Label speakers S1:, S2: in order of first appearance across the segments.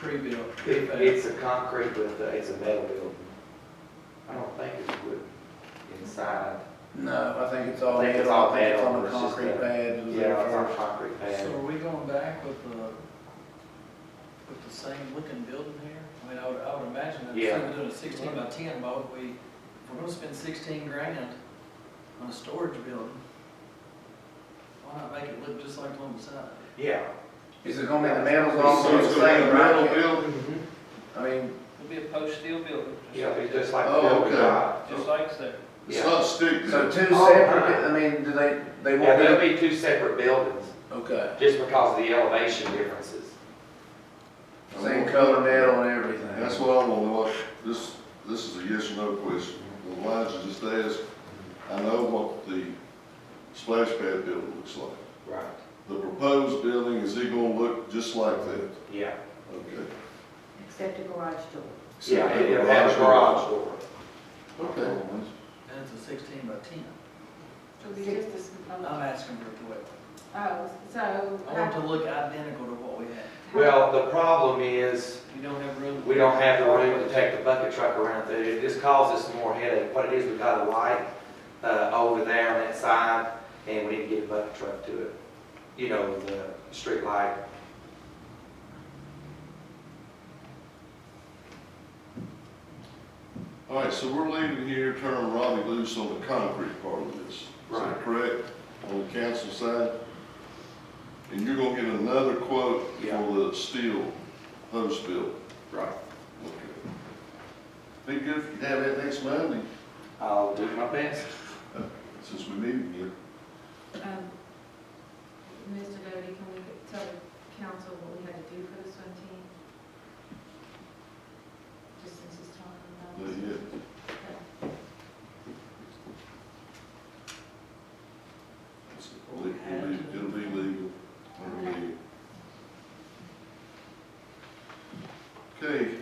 S1: tree built.
S2: It, it's a concrete with, uh, it's a metal building. I don't think it's wood inside.
S3: No, I think it's all,
S2: I
S3: I
S2: think
S3: think
S2: it's all
S3: it's
S2: metal,
S3: on the
S2: it's just
S3: concrete
S2: a-
S3: pad. that was there
S2: Yeah, it's on a
S3: first.
S2: concrete
S1: So
S2: pad.
S1: are we going back with the, with the same looking building here? I mean, I would, I would imagine that
S2: Yeah.
S1: if we're doing a sixteen by ten, why would we, if we're gonna spend sixteen grand on a storage building? Why not make it look just like the one beside it?
S2: Yeah.
S3: Is it gonna be the metals on
S4: So
S3: the
S4: it's gonna be
S3: same
S4: a metal
S3: bracket?
S4: building?
S3: I mean,
S5: It'll be a post steel building. just
S2: Yeah,
S5: like
S2: it's
S5: that.
S2: just like.
S4: Oh,
S2: building
S4: okay.
S2: lot.
S5: Just like that.
S4: It's not stick
S3: so
S4: built.
S3: two
S2: Oh,
S3: separate,
S2: my.
S3: I mean, do they, they
S2: Yeah,
S3: won't
S2: there'll
S3: be,
S2: be two separate buildings,
S3: okay,
S2: just because of the elevation differences.
S3: same color metal and everything.
S4: That's what I want to know. This, this is a yes or no question. The lines you just asked, I know what the splash pad building looks like.
S2: Right.
S4: The proposed building, is it gonna look just like that?
S2: Yeah.
S4: Okay.
S6: Except a garage door.
S2: Yeah, it- it'll have a garage door.
S4: Okay.
S1: And it's a sixteen by ten.
S6: It'll be just a small,
S1: I'm asking for it to work.
S6: oh, so.
S1: I want it to look identical to what we had.
S2: Well, the problem is,
S1: You don't have room.
S2: We don't have the room to take the bucket truck around through. It just causes some more headache. What it is, we got a light, uh, over there on that side, and we need to get a bucket truck to it. You know, the street light.
S4: All right, so we're leaving here, turning Robbie loose on the concrete part of this. Is that
S2: Right.
S4: Correct, on the council side? And you're gonna get another quote
S2: Yeah.
S4: for the steel post build.
S2: Right.
S4: Okay. Be good if you have that next Monday,
S2: I'll do my best.
S4: since we meet again.
S6: Um, Mr. Doty, can we tell the council what we had to do for this one team? Just since it's
S4: Not
S6: talking about.
S4: yet. It's- It'll be, it'll be legal, or legal. Okay,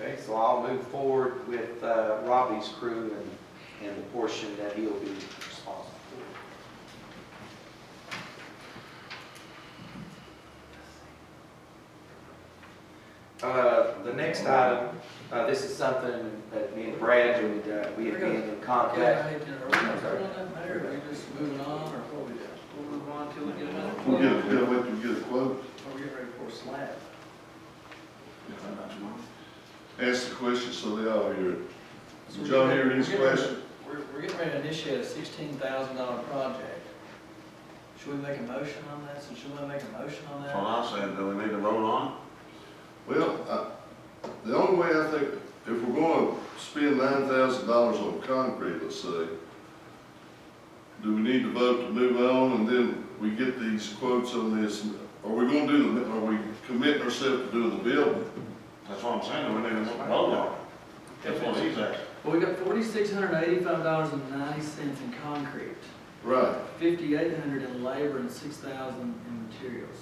S2: Okay, so I'll move forward with, uh, Robbie's crew and, and the portion that he'll be responsible for. Uh, the next item, uh, this is something that me and Brad, we, uh, we have been in
S1: Yeah,
S2: contact.
S1: I hate to interrupt. Are we doing that, Mayor? Are we just moving on or what we do?
S5: We'll move on till we get another
S4: we'll
S5: quote.
S4: get, a- we'll wait till we get a quote.
S1: Are we getting ready for a slab?
S4: Ask the question so they all hear it. Did y'all hear his question?
S1: We're, we're getting ready to initiate a sixteen thousand dollar project. Should we make a motion on that? So should we make a motion on that?
S7: I'm saying, do we need to vote on
S4: Well, I, the only way I think, if we're gonna spend nine thousand dollars on concrete, let's say, do we need to vote to move on and then we get these quotes on this? Are we gonna do, the? are we committing ourselves to doing the building?
S7: it? That's what I'm saying, do we need to vote on it? That's what he's asking.
S1: Well, we got forty-six hundred eighty-five dollars and ninety cents in concrete,
S4: Right.
S1: fifty-eight hundred in labor and six thousand in materials.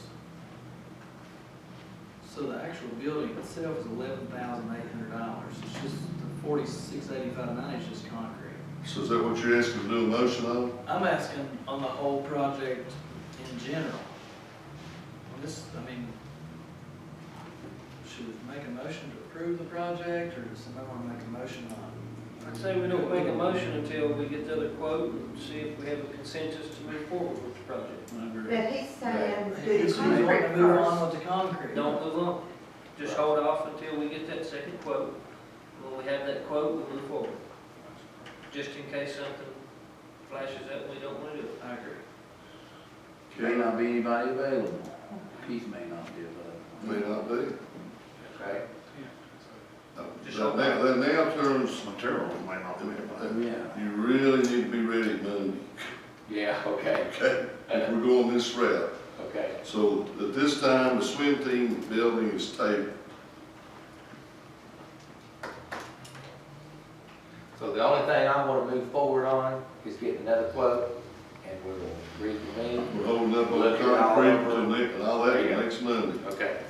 S1: So the actual building itself is eleven thousand eight hundred dollars. It's just the forty-six eighty-five ninety is just concrete.
S4: So is that what you're asking to do a motion on?
S1: I'm asking on the whole project in general. On This, I mean, should we make a motion to approve the project, or does somebody want to make a motion on?
S5: I'd say we don't make a motion until we get the other quote and see if we have a consensus to move forward with the project.
S6: But he's saying
S1: If
S6: do
S1: you
S6: the
S1: want to
S6: concrete
S1: move
S6: first.
S1: on with the concrete.
S5: Don't move on, just hold off until we get that second quote. When we have that quote, we'll move forward. Just in case something flashes up, and we don't want to do it.
S1: I agree.
S3: May not be anybody available. Keith may not be available.
S4: May not be.
S2: Okay.
S5: Just
S4: Now,
S5: hold
S4: now- now- now turns,
S7: Materials may not be available.
S3: Yeah.
S4: you really need to be ready Monday,
S2: Yeah, okay,
S4: okay? If we're going this route.
S2: okay.
S4: So at this time, the swim team building is tabled.
S2: So the only thing I want to move forward on is getting another quote, and we'll reconvene.
S4: We're holding up on
S2: Look it all
S4: concrete
S2: over.
S4: till next, and all that till next Monday.
S2: Okay.